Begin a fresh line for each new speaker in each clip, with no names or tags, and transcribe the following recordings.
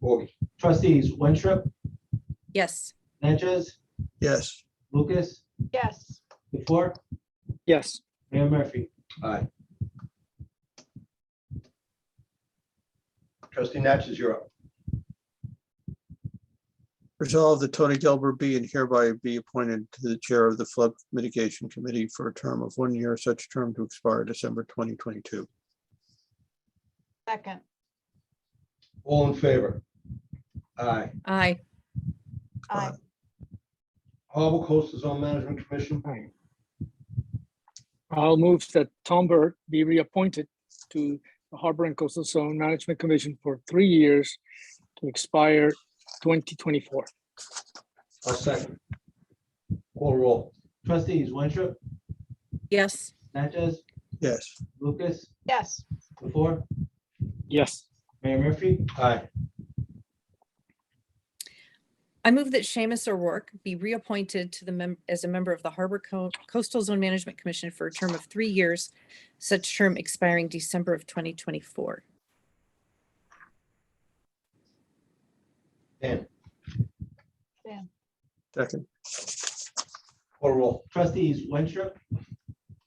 Bobby.
Trustees Winstrup,
Yes.
Natchez,
yes,
Lucas,
yes,
the floor,
yes,
Mayor Murphy.
Aye. Trustee Natchez, you're up.
resolve that Tony Gilbert be and hereby be appointed to the Chair of the Flood Mitigation Committee for a term of one year, such term to expire December twenty twenty-two.
second,
All in favor? Aye.
Aye.
aye,
Aye.
Harbor Coastal Zone Management Commission,
I'll move that Tom Burt be reappointed to the Harbor and Coastal Zone Management Commission for three years to expire 2024.
I'll second. Call roll.
Trustees Winstrup,
Yes.
Natchez,
Yes,
Lucas,
yes,
the floor,
Yes,
Mayor Murphy.
Aye.
I move that Seamus O'Rourke be reappointed to the mem- as a member of the Harbor Co- Coastal Zone Management Commission for a term of three years, such term expiring December of 2024.
Dan,
second,
call roll.
Trustees Winstrup,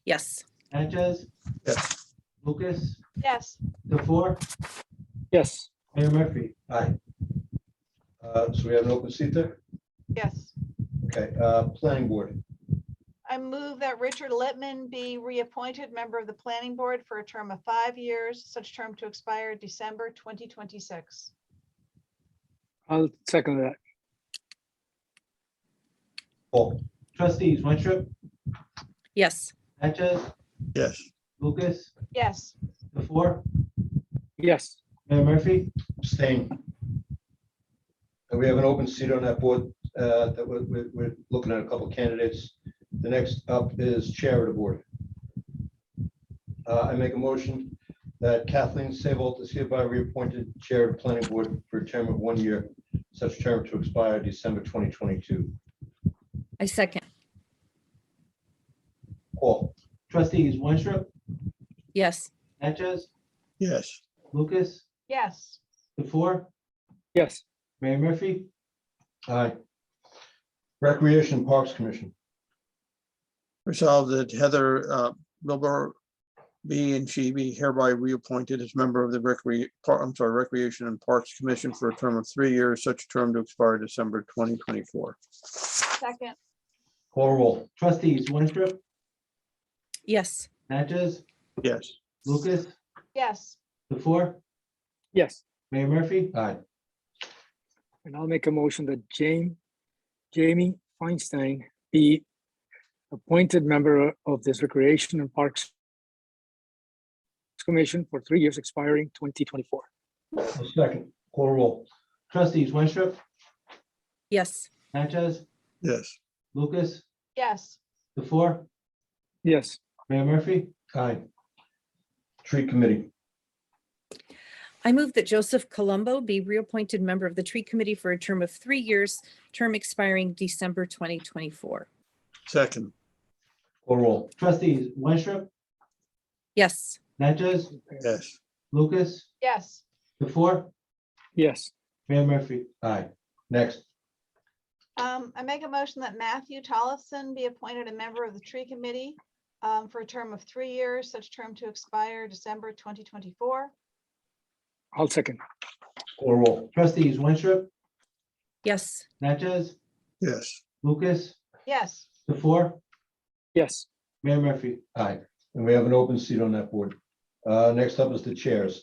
Yes.
Natchez,
yes,
Lucas,
yes,
the floor,
yes,
Mayor Murphy.
Aye. Uh, So we have an open seat there?
yes.
Okay, uh, Planning Board,
I move that Richard Littman be reappointed member of the planning board for a term of five years, such term to expire December twenty twenty-six.
I'll second that.
Paul.
Trustees Winstrup,
Yes.
Natchez,
yes,
Lucas,
Yes,
the floor,
Yes,
Mayor Murphy.
Abstain. And we have an open seat on that board uh, that we're- we're, we're looking at a couple candidates. The next up is Chair of the Board. Uh, I make a motion that Kathleen Sebold is hereby reappointed Chair of the Planning Board for a term of one year, such term to expire December 2022.
I second.
Paul,
Trustees Winstrup,
Yes.
Natchez,
yes,
Lucas,
yes,
the floor,
yes,
Mayor Murphy.
aye. Recreation Parks Commission,
resolve that Heather uh, Wilbur be and she be hereby reappointed as member of the Recre, Par- I'm sorry, Recreation and Parks Commission for a term of three years, such term to expire December twenty twenty-four.
second,
call roll.
Trustees Winstrup,
Yes.
Natchez,
Yes,
Lucas,
yes,
the floor,
yes.
Mayor Murphy.
Aye.
And I'll make a motion that Jane, Jamie Feinstein be appointed member of this Recreation and Parks Commission for three years expiring twenty twenty-four.
I'll Second, call roll.
Trustees Winstrup,
Yes.
Natchez,
yes,
Lucas,
yes,
the floor,
Yes,
Mayor Murphy.
Aye. Tree Committee,
I move that Joseph Colombo be reappointed member of the Tree Committee for a term of three years, term expiring December 2024.
second,
call roll.
Trustees Winstrup,
Yes.
Natchez,
yes,
Lucas,
yes,
the floor,
yes,
Mayor Murphy.
Aye. Next,
Um, I make a motion that Matthew Tollefson be appointed a member of the tree committee um, for a term of three years, such term to expire December twenty twenty-four.
I'll second.
call roll.
Trustees Winstrup,
Yes.
Natchez,
yes,
Lucas,
Yes,
the floor,
Yes,
Mayor Murphy.
Aye, and we have an open seat on that board. Uh, Next up is the chairs.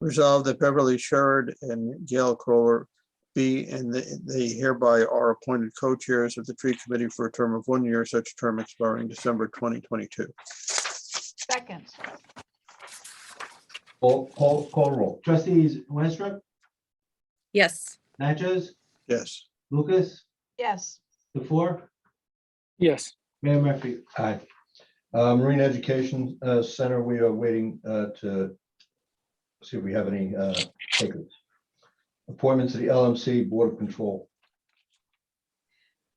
Resolved that Beverly Sherrod and Gail Crowler be and they- they hereby are appointed co-chairs of the tree committee for a term of one year, such term expiring December twenty twenty-two.
second,
Call, call, call roll.
Trustees Winstrup,
Yes.
Natchez,
Yes,
Lucas,
yes,
the floor,
yes,
Mayor Murphy.
Aye. Uh, Marine Education uh, Center, we are waiting uh, to see if we have any uh, takers. Appointments to the LMC Board of Control.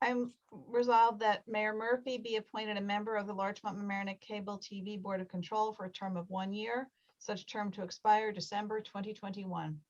I'm resolved that Mayor Murphy be appointed a member of the Larchmont Mamaroneck Cable TV Board of Control for a term of one year, such term to expire December twenty twenty-one.